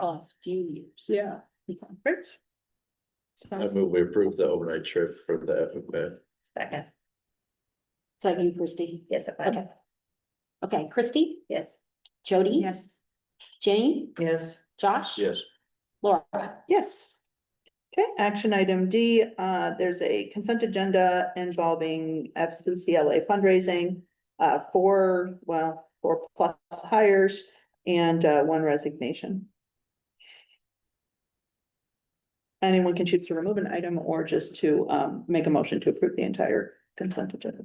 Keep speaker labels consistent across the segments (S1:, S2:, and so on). S1: past few years.
S2: Yeah.
S1: Okay.
S2: Great.
S3: I
S2: Sounds-
S3: move we approve the overnight trip for the FFA.
S4: Second,
S1: Second, Christie.
S4: yes, if I
S1: Okay. Okay, Christie,
S4: yes.
S1: Jody.
S2: Yes.
S1: Jane,
S4: Yes.
S1: Josh.
S3: Yes.
S1: Laura.
S2: Yes. Okay, action item D, uh, there's a consent agenda involving FCCLA fundraising. Uh, four, well, four plus hires and, uh, one resignation. Anyone can choose to remove an item or just to, um, make a motion to approve the entire consent agenda.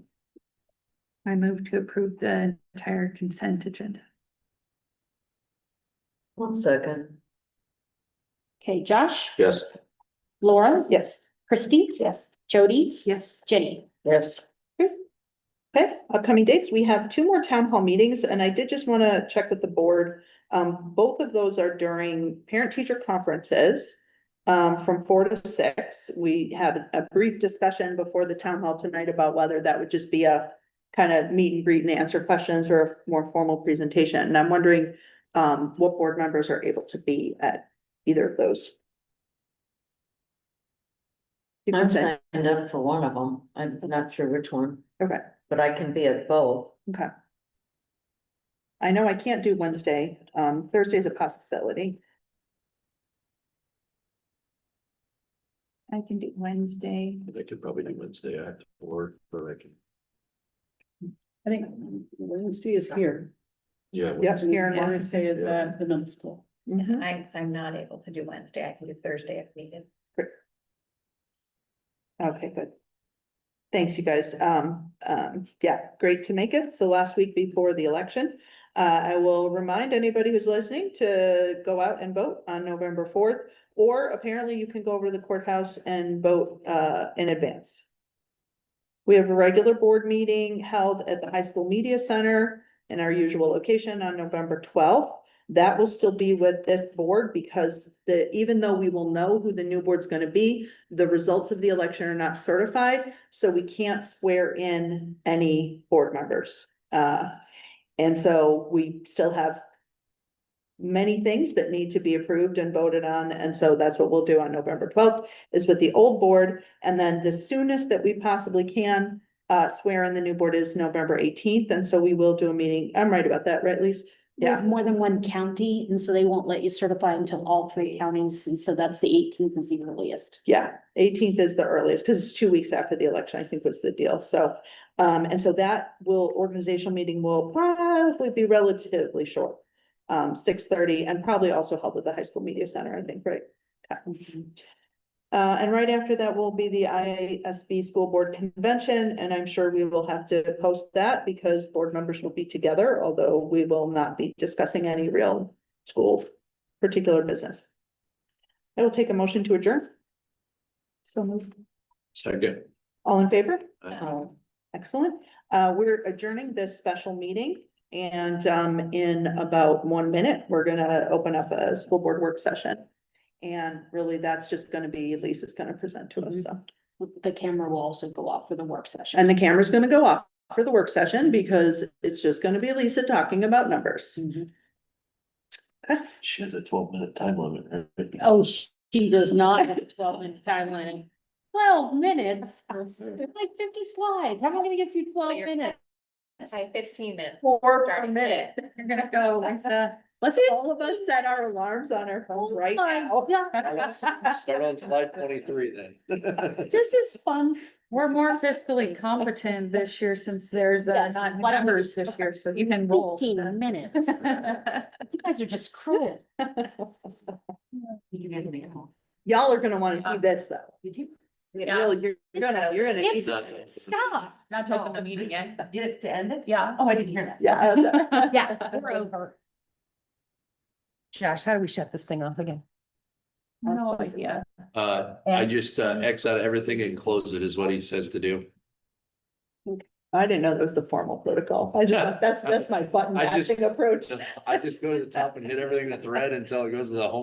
S5: I move to approve the entire consent agenda.
S4: One second.
S1: Okay, Josh,
S3: Yes.
S1: Laura,
S2: Yes.
S1: Christie,
S4: Yes.
S1: Jody,
S5: Yes,
S1: Jenny.
S4: Yes.
S2: Okay, upcoming dates, we have two more town hall meetings, and I did just want to check with the board. Um, both of those are during parent-teacher conferences. um, from four to six, we had a brief discussion before the town hall tonight about whether that would just be a. Kind of meet and greet and answer questions or a more formal presentation, and I'm wondering, um, what board members are able to be at either of those. You
S4: I'm
S2: can say,
S4: signed up for one of them. I'm not sure which one,
S2: okay.
S4: but I can be at both.
S2: I know I can't do Wednesday, um, Thursday's a possibility.
S5: I can do Wednesday.
S3: I could probably do Wednesday after work, but I can,
S6: I think Wednesday is here.
S3: yeah.
S2: Yep.
S6: Here and
S5: Yeah.
S6: Wednesday is
S3: Yeah.
S6: at the middle school.
S2: Mhm.
S4: I'm, I'm not able to do Wednesday. I can do Thursday if needed.
S2: Okay, good. Thanks, you guys. Um, um, yeah, great to make it. So last week before the election. Uh, I will remind anybody who's listening to go out and vote on November fourth. Or apparently you can go over to the courthouse and vote, uh, in advance. We have a regular board meeting held at the High School Media Center in our usual location on November twelfth. That will still be with this board because the, even though we will know who the new board's gonna be, the results of the election are not certified, so we can't swear in any board members. Uh, and so we still have many things that need to be approved and voted on, and so that's what we'll do on November twelfth, is with the old board. And then the soonest that we possibly can, uh, swear in the new board is November eighteenth, and so we will do a meeting. I'm right about that, right, Lise?
S1: There's
S2: Yeah.
S1: More than one county, and so they won't let you certify until all three counties, and so that's the eighteenth is the earliest.
S2: Yeah, eighteenth is the earliest, because it's two weeks after the election, I think was the deal, so. Um, and so that will, organizational meeting will probably be relatively short. Um, six thirty and probably also held at the high school media center, I think, right? Yeah. Uh, and right after that will be the IASB School Board Convention, and I'm sure we will have to post that because board members will be together, although we will not be discussing any real school particular business. I will take a motion to adjourn.
S5: So moved.
S3: Second.
S2: All in favor?
S3: Uh,
S4: Oh,
S2: Excellent. Uh, we're adjourning this special meeting. And, um, in about one minute, we're gonna open up a school board work session. And really, that's just gonna be, Lisa's gonna present to us,
S4: Mm-hmm.
S2: so.
S1: The camera will also go off for the work session.
S2: And the camera's gonna go off for the work session because it's just gonna be Lisa talking about numbers.
S3: She has a twelve minute time limit. right?
S1: Oh, sh- she does not have a twelve minute timeline. Twelve minutes? It's Like fifty slides. How am I gonna give you twelve minutes?
S4: say fifteen minutes.
S2: Four
S4: per minute.
S5: You're gonna go, Lisa.
S2: Let's all of us set our alarms on our phones right
S1: My
S2: now.
S1: God,
S3: Start on slide twenty-three then.
S1: This is fun.
S5: We're more fiscally competent this year since there's uh,
S1: Yes,
S5: not
S1: why don't we
S5: numbers this
S1: just-
S5: year, so you can roll.
S1: Fifteen minutes. You guys are just cruel.
S2: Y'all are gonna wanna see this though. Did you?
S5: Yeah.
S2: You're gonna, you're gonna. need
S1: It's,
S2: this.
S1: stop.
S5: Not to open the meeting yet.
S4: Did it to end it?
S5: Yeah.
S4: Oh, I didn't hear that.
S2: Yeah.
S1: Yeah, we're over.
S7: Josh, how do we shut this thing off again?
S5: No idea.
S3: Uh, I just uh, X out everything and close it is what he says to do.
S2: I didn't know that was the formal protocol. I just, that's, that's my button
S3: I just-
S2: mapping approach.
S3: I just go to the top and hit everything that's red until it goes to the home